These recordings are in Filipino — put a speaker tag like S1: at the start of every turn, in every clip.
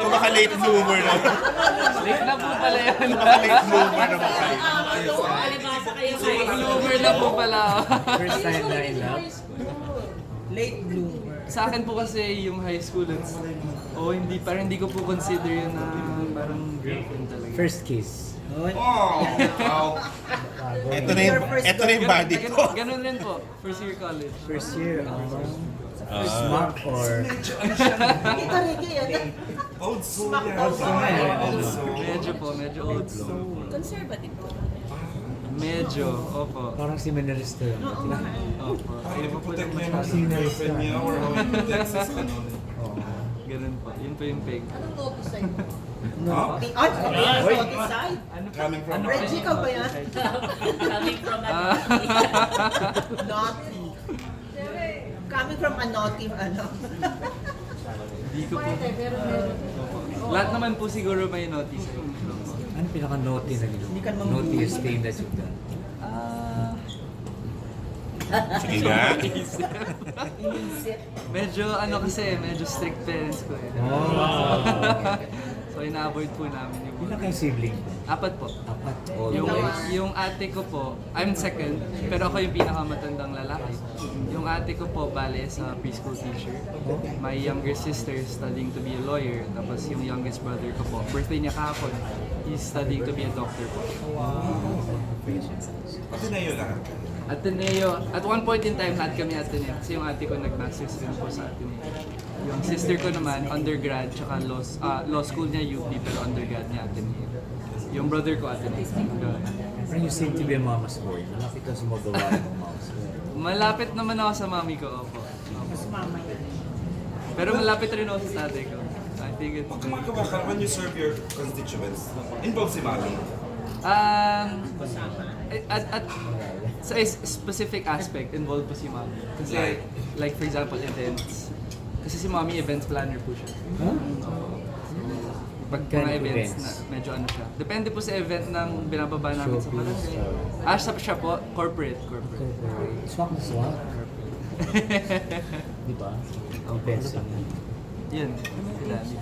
S1: Yung baka late bloomer na.
S2: Late na po pala yan.
S1: Baka late bloomer na baka.
S3: Ah,
S4: Alibasa kayo kayo.
S2: Bloomer na po pala.
S5: First time na in love.
S4: Late bloomer.
S2: Sa akin po kasi yung high school, it's, oh, hindi, parang hindi ko po consider yun na parang girlfriend talaga.
S5: First kiss.
S1: Oh, wow. Ito na yung, ito na yung body ko.
S2: Ganun- Ganun rin po, first year college.
S5: First year. Um, first month or...
S4: Ito Ricky yun.
S6: Old soul. yan. Old soul.
S2: Medyo po, medyo old school.
S3: Conservative po.
S2: Medyo, opo.
S5: Parang si Meneristo yun.
S2: Opo.
S6: Ay, ipaputek na yung
S5: Kasi na-
S6: girlfriend niya or how in Texas, ano.
S5: Oo.
S2: Ganun po. Yun po yung peg.
S3: Anong logo sa'yo?
S6: Huh?
S4: Ay, ay, ay,
S2: Ano po?
S6: Coming from
S2: Ano
S6: Red
S2: po
S4: Reggie
S2: yun?
S4: ka ba yan?
S3: Coming from
S2: Ah.
S4: Naughty. Coming from a naughty, ano.
S2: Hindi ko po. Opo. Lahat naman po siguro may notice. Opo.
S5: Ano pinaka-naughty na ginawa?
S4: Hindi ka naman-
S5: Naughtiest thing that you've done.
S2: Ah,
S1: Sige nga.
S2: medyo ano kasi, medyo strict parents ko eh.
S5: Oh.
S2: so ina-avoid po namin yung
S5: Ilan kayo sibling?
S2: Apat po.
S5: Apat.
S2: Yung,
S5: Always.
S2: yung ate ko po, I'm second, pero ako yung pinakamatandang lalaki. Yung ate ko po, bale, sa preschool teacher. My younger sister studying to be a lawyer. Tapos yung youngest brother ko po, birthday niya kahapon, he's studying to be a doctor po.
S6: Pati na yun lahat.
S2: Ateneo, at one point in time, lahat kami Ateneo. Kasi yung ate ko nag-masters rin po sa Ateneo. Yung sister ko naman, undergrad, tsaka law, s- ah, law school niya UP, pero undergrad niya Ateneo. Yung brother ko Ateneo. Ganun.
S5: Parang you seem to be a mama's boy. Malapit ka sumagawa ng mouse.
S2: Malapit naman ako sa mami ko, opo. Opo. Pero malapit rin ako sa tatay ko. I think it's...
S6: Pag kumagawa ka, when you serve your constituents, involved si Mami.
S2: Um, eh, at, at, sa is- specific aspect, involved po si mami. Kasi, like for example, events. Kasi si mami events planner po siya.
S5: Huh?
S2: Pag
S5: Kind
S2: mga
S5: of
S2: events,
S5: events.
S2: na medyo ano siya. Depende po sa event ng binababa namin sa
S5: Showbiz, uh,
S2: barangay. Ah, siya, siya po, corporate, corporate.
S5: Swak na swak. Di ba? Ang best.
S2: Yun, si daddy.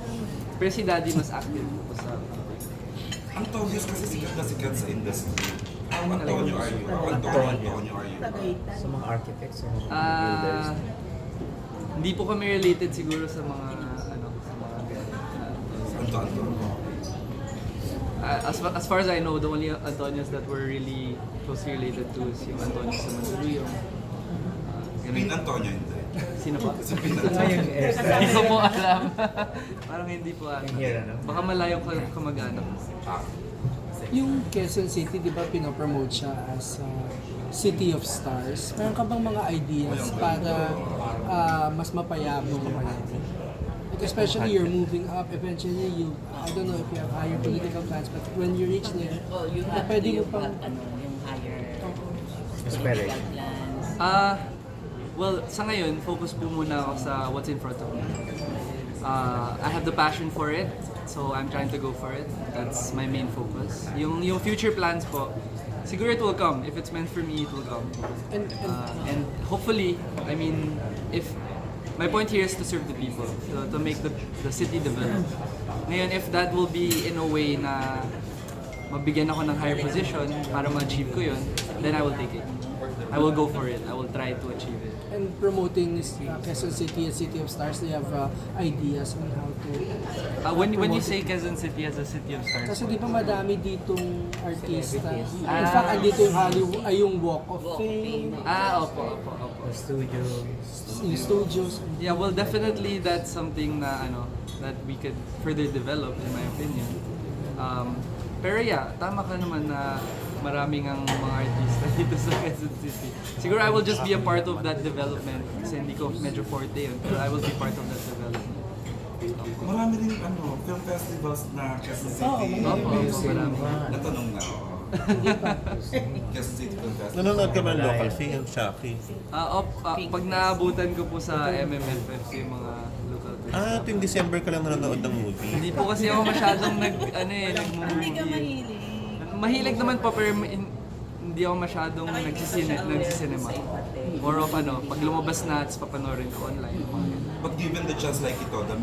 S2: Pero si daddy mas active po sa
S6: Ang Tobias kasi sikat na sikat sa industry. Ang Antonio are you? Ang Antonio, Antonio are you?
S4: Tagaytan.
S5: Sa mga architects, sa mga builders.
S2: Ah, hindi po kami related siguro sa mga ano sa mga ganun.
S6: Anto, Anto.
S2: Ah, as, fa- as far as I know, the only Antonios that were really closely related to is yung Antonios sa Mandaluyong. yung ah,
S6: Pin
S2: ganun.
S6: Antonio, hindi.
S2: Sino pa?
S6: Kasi Pin
S5: Ano yung
S6: Antonio.
S5: airstyle?
S2: Hindi ko po alam. Parang hindi po alam.
S5: Yung here, ano?
S2: Baka malayo ko kamag-anak.
S6: Ah,
S7: Yung Quezon City, di ba pinopromote siya as uh, City of Stars? Meron ka bang mga ideas para ah, mas mapayabong yung Like especially you're moving up, eventually you, I don't know if you have higher political plans, but when you reach there,
S3: Oh, you
S7: na
S3: have to
S7: pwede mo
S3: yung,
S7: pang...
S3: pag- ano, yung higher
S5: Aspiration.
S3: political plans.
S2: Ah, well, sa ngayon, focus po muna ako sa what's in front of me. Ah, I have the passion for it, so I'm trying to go for it. That's my main focus. Yung, yung future plans po, siguro it will come. If it's meant for me, it will come.
S7: And, and
S2: Ah, and hopefully, I mean, if my point here is to serve the people, to, to make the, the city develop. Ngayon, if that will be in a way na mabigyan ako ng higher position para ma-achieve ko yun, then I will take it. I will go for it. I will try to achieve it.
S7: and promoting this, uh, Quezon City as City of Stars, they have uh, ideas on how to...
S2: Uh, when, when you say Quezon City as a city of stars,
S7: Kasi di ba madami ditong artista? In
S2: Ah.
S7: fact, andito yung, Hollywood, ay yung Walk of
S3: Walk of
S7: Fame,
S3: Fame.
S2: ah, opo, opo, opo.
S5: The studio.
S7: yung studios,
S2: Yeah, well, definitely that's something na ano that we could further develop in my opinion. Um, pero yeah, tama ka naman na maraming ang mga artista dito sa Quezon City. Siguro I will just be a part of that development kasi hindi ko medyo forte yun, pero I will be part of that development.
S6: Marami rin ano, film festivals na Quezon City.
S2: Opo, opo, marami.
S6: Natanong na ako. Quezon City Film Festival.
S1: Nanonood ka man local, si Ang Shaki.
S2: Ah, op, ah, pag naabutan ko po sa MMFFC yung mga local
S1: Ah, tuwing December ka lang nanonood ng movie.
S2: Hindi po kasi ako masyadong nag, ano eh,
S3: Hindi ka
S2: nagmumovie.
S3: mahilig.
S2: Mahilig naman po pero in- hindi ako masyadong nagsisine, nagsisinema. More of ano, pag lumabas na, tapos papanorin ko online. mga ganun.
S6: But given the chance like ito, the